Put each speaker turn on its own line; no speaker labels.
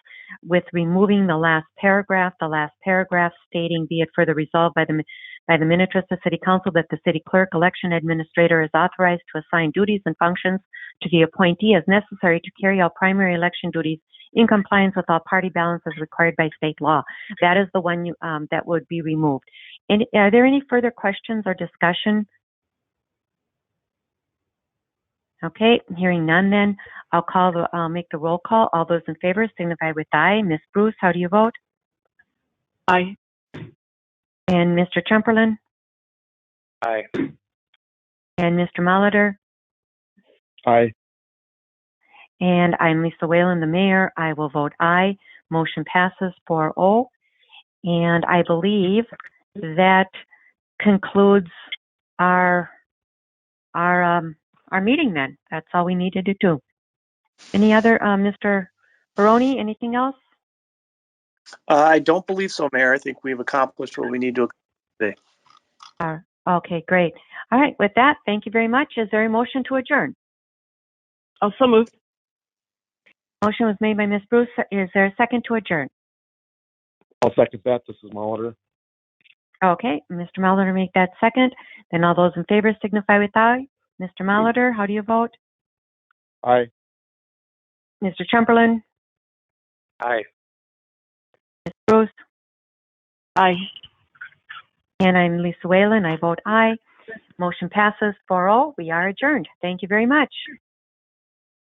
with removing the last paragraph, the last paragraph stating, be it further resolved by the, mi- by the Minutress of City Council that the city clerk, election administrator is authorized to assign duties and functions to the appointee as necessary to carry out primary election duties in compliance with all party balances required by state law. That is the one you, um, that would be removed. And are there any further questions or discussion? Okay, hearing none then, I'll call the, I'll make the roll call. All those in favor signify with aye. Ms. Bruce, how do you vote?
Aye.
And Mr. Chumperland?
Aye.
And Mr. Molitor?
Aye.
And I'm Lisa Whalen, the mayor. I will vote aye. Motion passes 4-0. And I believe that concludes our, our, um, our meeting then. That's all we needed to do. Any other, uh, Mr. Baroni, anything else?
Uh, I don't believe so, Mayor. I think we've accomplished what we need to.
Uh, Okay, great. All right, with that, thank you very much. Is there a motion to adjourn?
Also moved.
Motion was made by Ms. Bruce. Is there a second to adjourn?
I'll second that. This is Molitor.
Okay, Mr. Molitor make that second. Then all those in favor signify with aye. Mr. Molitor, how do you vote?
Aye.
Mr. Chamberlain?
Aye.
Ms. Bruce?
Aye.
And I'm oh. Lisa Whalen. I vote aye. Motion passes 4-0. We are adjourned. Thank you very much.